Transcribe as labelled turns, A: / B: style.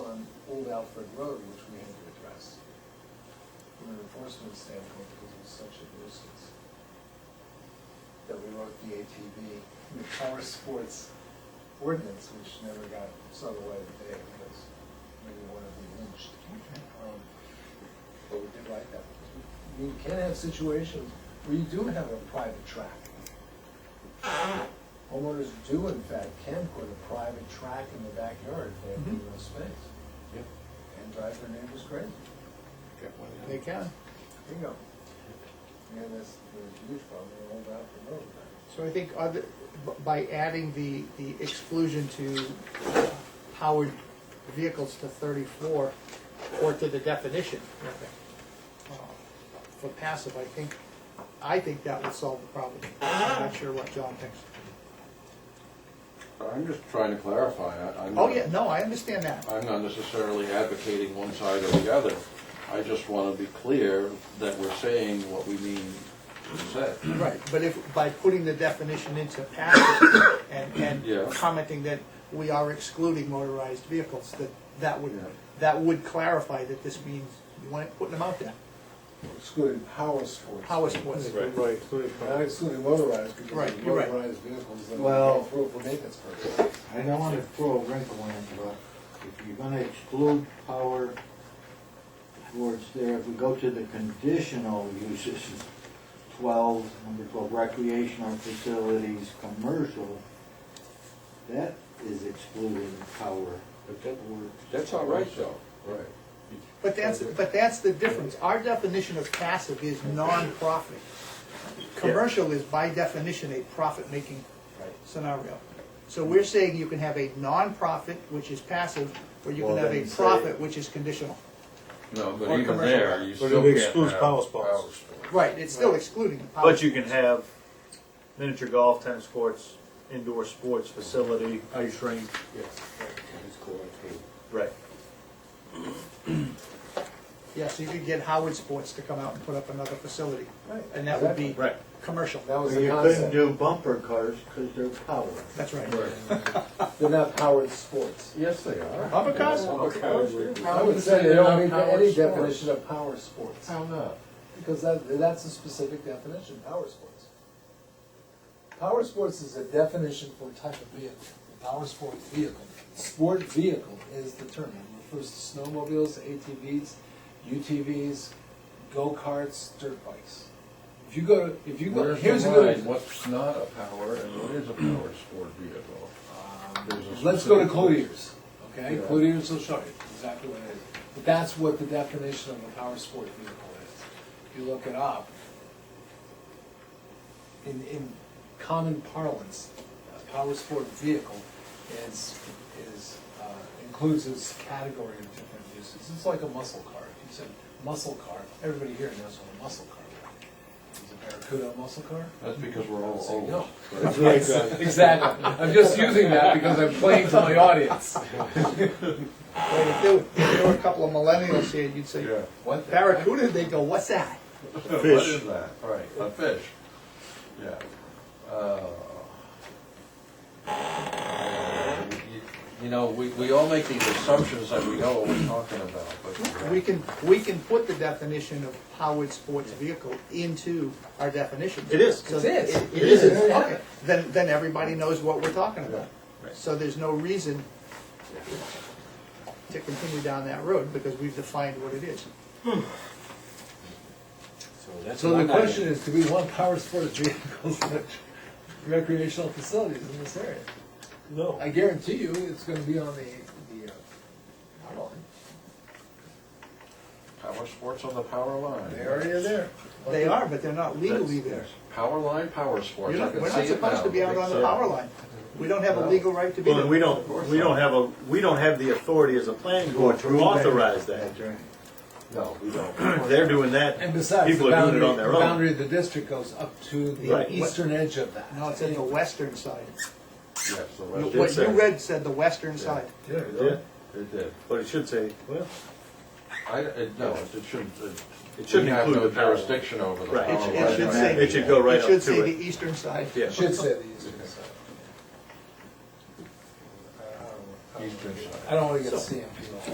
A: Alfred Road, which we had to address from an enforcement standpoint, because it was such a nuisance. That we wrote the ATV, the power sports ordinance, which never got saw the light of day, because maybe one of them lynched. Um, But we did like that. We we can have situations where you do have a private track. Homeowners do in fact can put a private track in the backyard if they have
B: Mm-hmm.
A: no space
C: Yep.
A: and drive their neighbors crazy.
B: They can.
A: Bingo. Yeah, that's the huge problem, they hold out the road.
B: So I think other, b- by adding the, the exclusion to uh, powered vehicles to thirty-four, or to the definition, uh, for passive, I think, I think that would solve the problem. I'm not sure what John thinks.
D: I'm just trying to clarify, I- I'm.
B: Oh, yeah, no, I understand that.
D: I'm not necessarily advocating one side or the other. I just want to be clear that we're saying what we mean to say.
B: Right, but if, by putting the definition into passive and,
D: Yeah.
B: and commenting that we are excluding motorized vehicles, that, that would,
D: Yeah.
B: that would clarify that this means you want, putting them out there,
A: Excluding power sports.
B: power sports.
C: Right.
A: Not excluding motorized, because
B: Right,
A: the
B: you're right.
A: motorized vehicles that
E: Well-
A: go through for maintenance purposes.
E: I don't wanna throw a wrinkle in, but if you're gonna exclude power towards there, if we go to the conditional uses, twelve, number twelve, recreational facilities, commercial, that is excluding power.
D: But that- That's all right, though. Right.
B: But that's, but that's the difference. Our definition of passive is non-profit. Commercial is by definition a profit-making scenario. So we're saying you can have a non-profit, which is passive, or you can
E: Well,
B: have a
E: then say-
B: profit, which is conditional.
D: No,
B: Or
D: but even
B: commercial.
D: there, you
C: But it
D: still can't
C: excludes
D: have
C: power sports.
D: power sports.
B: Right, it's still excluding. the power.
C: But you can have miniature golf, tennis courts, indoor sports facility, ice rink. Right.
B: Yeah, so you could get Howard Sports to come out and put up another facility,
A: Right.
B: and that would be
C: Right.
B: commercial.
A: That was
E: Or
A: the
E: You couldn't
A: concept,
E: do bumper cars, cause they're power.
B: That's right.
A: they're not powered sports.
D: Yes, they are.
B: Bumper cars?
A: I would say they don't meet any definition of power sports.
D: How not?
A: Because that, that's a specific definition, power sports. Power sports is a definition for a type of vehicle, a power sport vehicle. Sport vehicle is the term, it refers to snowmobiles, ATVs, UTVs, go-karts, dirt bikes. If you go to, if you go,
D: Where's
A: here's
D: the
A: a
D: line,
A: good,
D: what's not a power and what is a power sport vehicle? There's a
A: let's go to
D: specific-
A: Clotier's, okay?
D: Yeah.
A: Clotier's will show you exactly what it is. But that's what the definition of a power sport vehicle is. If you look it up, in, in common parlance, a power sport vehicle is, is, uh, includes this category of different uses. It's like a muscle car. If you said muscle car, everybody here knows what a muscle car is. Is a Barracuda a muscle car?
D: That's because we're all
A: So,
D: old.
A: no.
D: right?
A: Exactly. I'm just using that because I'm playing to my audience.
B: Right, If there were- if there were a couple of millennials here, you'd say,
D: Yeah.
A: What the-
B: Barracuda, they'd go, what's that?
D: What is that? Right, a fish. Yeah. Uh, you- You know, we, we all make these assumptions that we know what we're talking about, but.
B: We can, we can put the definition of powered sports vehicle into our definition.
C: It is.
B: So
A: It is.
B: It it
A: It is.
B: is, okay. Then, then everybody knows what we're talking about.
C: Right.
B: So there's no reason to continue down that road because we've defined what it is.
A: So the question is, do we want power sports vehicles at recreational facilities in this area?
C: No.
A: I guarantee you, it's gonna be on the, the, uh, power line.
D: Power sports on the power line.
A: they already are there.
B: They are, but they're not legally there.
D: Power line, power sports.
B: You're
D: I
B: not,
D: can
B: we're
D: see
B: not
D: it
B: supposed
D: now. uh,
B: to be out on the
D: Yeah.
B: power line. We don't have a
D: No.
B: legal right to be
C: uh, Well,
B: there.
C: then we don't, we don't have a, we don't have the authority as a planning board to authorize that.
E: That's right.
D: No, we don't.
C: They're doing that,
A: And besides, the
C: people are doing
A: boundary,
C: it on
A: the
C: their
A: boundary
C: own.
A: of the district goes up to the
C: Right.
A: eastern edge of that.
B: No, it's in the western side.
D: Yes, the
B: What
D: rest.
B: you
C: say.
B: read said the western side.
A: Yeah.
C: Yeah,
D: It did.
C: But it should say, well,
D: I, it, no, it shouldn't, it.
C: It shouldn't
D: we have
C: include
D: no
C: the power line.
D: Jurisdiction over the power
C: Right.
B: It
D: line.
B: should- it should say.
C: It should go right up
B: It should
C: to
B: say
C: it.
B: the eastern side.
C: yeah.
A: Should say the eastern side. I don't know.
D: Eastern side.
A: I don't wanna get CMP.